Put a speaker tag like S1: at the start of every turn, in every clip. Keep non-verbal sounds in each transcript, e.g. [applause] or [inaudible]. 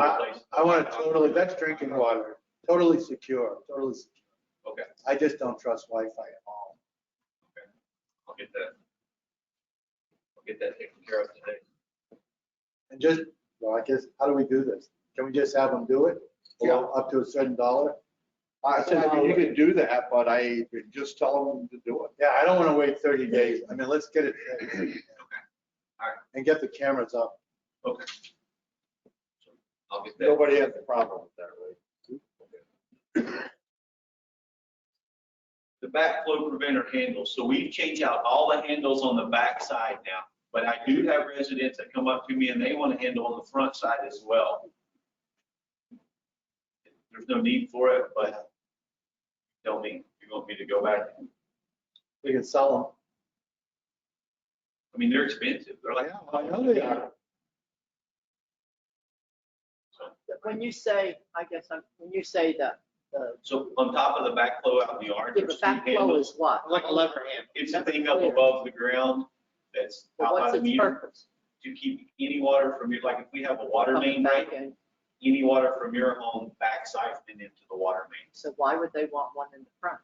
S1: I want it totally, that's drinking water, totally secure, totally. secure.
S2: Okay.
S1: I just don't trust Wi-Fi at all.
S2: I'll get that. I'll get that taken care of today.
S1: And just, well, I guess, how do we do this? Can we just have them do it?
S3: Yeah.
S1: Up to a certain dollar?
S3: I, I mean, you can do that, but I would just tell them to do it.
S1: Yeah, I don't want to wait 30 days. I mean, let's get it.
S2: Alright.
S1: And get the cameras up.
S2: Okay. So I'll get that.
S3: Nobody has a problem with that, right?
S2: The backflow preventer handles, so we've changed out all the handles on the back side now. But I do have residents that come up to me and they want a handle on the front side as well. There's no need for it, but tell me, you want me to go back?
S1: We can sell
S2: I mean, they're expensive. They're
S1: them.
S2: like,
S1: I know they are.
S4: When you say, I guess, I'm- when you say the, the,
S2: so on top of the backflow out in the yard,
S4: the
S2: there's two
S4: backflow
S2: handles.
S4: is what?
S5: Like a lever hand.
S2: It's a thing up above the ground that's
S4: But
S2: out by
S4: What's
S2: the
S4: its
S2: meter
S4: purpose?
S2: to keep any water from your, like if we have a water main
S4: Coming back
S2: break,
S4: in.
S2: any water from your home back siphoning into the water main.
S4: So why would they want one in the front?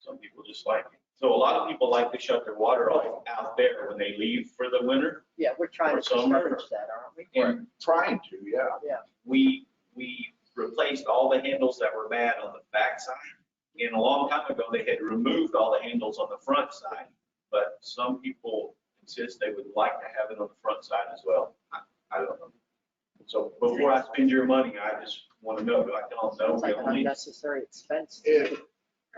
S2: Some people just like it. So a lot of people like to shut their water off out there when they leave for the winter.
S4: Yeah, we're trying
S2: Or
S4: to
S2: somewhere.
S4: discourage that, aren't we?
S2: And
S3: Trying to, yeah.
S2: we, we replaced all the handles that were bad on the backside. And a long time ago, they had removed all the handles on the front side, but some people insist they would like to have it on the front side as well. I I don't know. So before I spend your money, I just want to know, do I tell them no,
S4: It's
S2: we
S4: like an
S2: only,
S4: unnecessary expense.
S3: It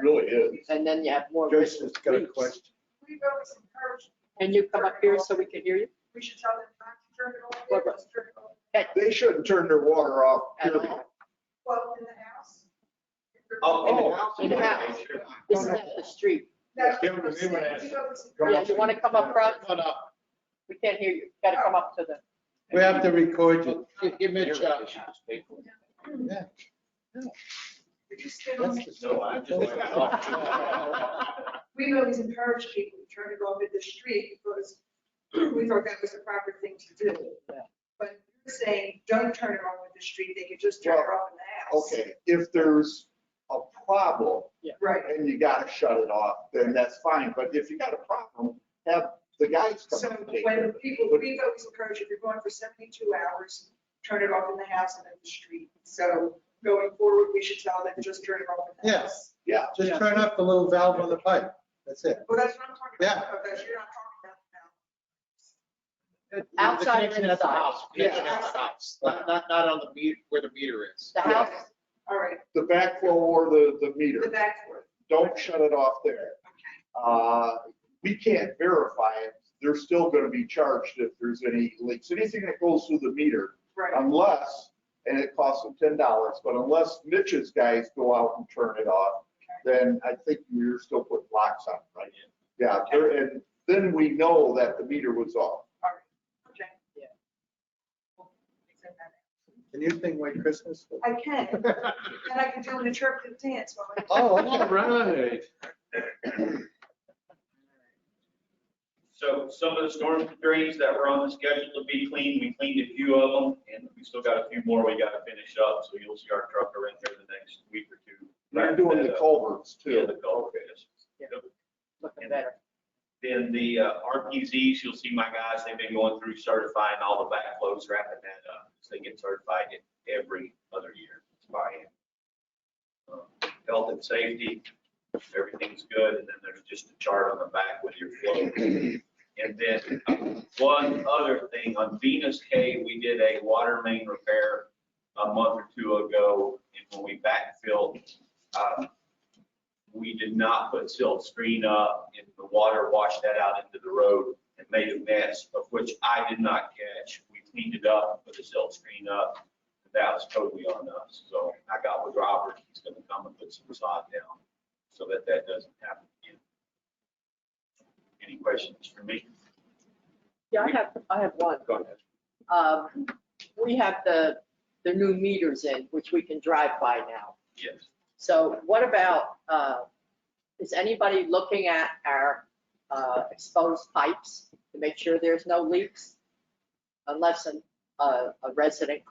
S3: really is.
S4: And then you have more risk
S1: Joyce's
S4: of
S1: got a
S4: leaks.
S1: question.
S6: We've always encouraged.
S4: Can you come up here so we can hear you?
S6: We should tell them not to turn it off.
S4: What about-
S6: Turn it off.
S3: They shouldn't turn their water off.
S4: At all.
S3: period.
S6: Well, in the house.
S2: oh,
S4: In the house. This is at the street.
S6: That's what
S3: Yeah,
S6: I'm
S3: we
S6: saying.
S3: were asking.
S6: We've always encouraged-
S4: Yeah, you want to come up front?
S5: Come on up.
S4: We can't hear you. Got to come up to
S2: [laughs]
S4: the,
S1: We have to record you.
S5: Give- Give Mitch a.
S1: Yeah.
S6: We just did
S1: That's
S6: always-
S1: the stuff.
S2: No, I just.
S6: We've always encouraged people to turn it off at the street because [clears throat] we thought that was the proper thing to do.
S4: Yeah.
S6: But you're saying, don't turn it off at the street, they could just turn it off in the house.
S3: Okay, if there's a problem
S6: Right,
S3: and you gotta shut it off, then that's fine. But if you got a problem, have the guys
S6: so
S3: come and take care
S6: when
S3: of it.
S6: people, we've always encouraged, if you're going for 72 hours, turn it off in the house and in the street. So going forward, we should tell them, just turn it off in the
S1: Yeah.
S6: house.
S3: Yeah,
S1: Just turn up the little valve on the pipe. That's it.
S6: Well, that's what I'm talking about.
S1: Yeah.
S6: Oh, that's- you're not talking about now.
S4: Outside
S5: The
S4: and
S5: connection at the
S4: inside.
S5: house, Connection at the house, not, not not on the meter, where the meter is.
S4: the house.
S6: All right,
S3: the backflow or the, the meter.
S6: the back door.
S3: don't shut it off there. Uh, We can't verify it. They're still going to be charged if there's any leaks. Anything that goes through the meter,
S6: Right,
S3: unless, and it costs them ten dollars, but unless Mitch's guys go out and turn it off, then I think you're still putting locks on, right? Yeah, there- and then we know that the meter was off.
S6: all right, okay.
S4: Yeah.
S1: Can you sing White
S3: [laughs]
S1: Christmas?
S6: I can, and I can do an interpretive dance while I.
S1: Oh, okay.
S5: right.
S2: So some of the storm drains that were on the schedule to be cleaned, we cleaned a few of them, and we still got a few more we gotta finish up, so you'll see our truck around there the next week or two. Uh,
S3: They're doing the culverts
S2: Yeah,
S3: too.
S2: the culvert is.
S4: Yeah.
S2: Yep.
S4: Looking better.
S2: Then the uh, RPZs, you'll see my guys, they've been going through certifying all the backflows, wrapping that up. So They get certified every other year by hand. Health and safety, everything's good, and then there's just a chart on the back with your flow. And then uh, one other thing, on Venus K, we did a water main repair a month or two ago, and when we backfilled, um, we did not put silt screen up and the water washed that out into the road and made a mess, of which I did not catch. We cleaned it up, put the silt screen up. That was totally on us. So I got with Robert, he's gonna come and put some sod down so that that doesn't happen again. Any questions for me?
S4: Yeah, I have, I have one.
S2: Go ahead.
S4: Um, We have the, the new meters in, which we can drive by now.
S2: Yes.
S4: So what about, uh, is anybody looking at our uh, exposed pipes to make sure there's no leaks? Unless an- a a resident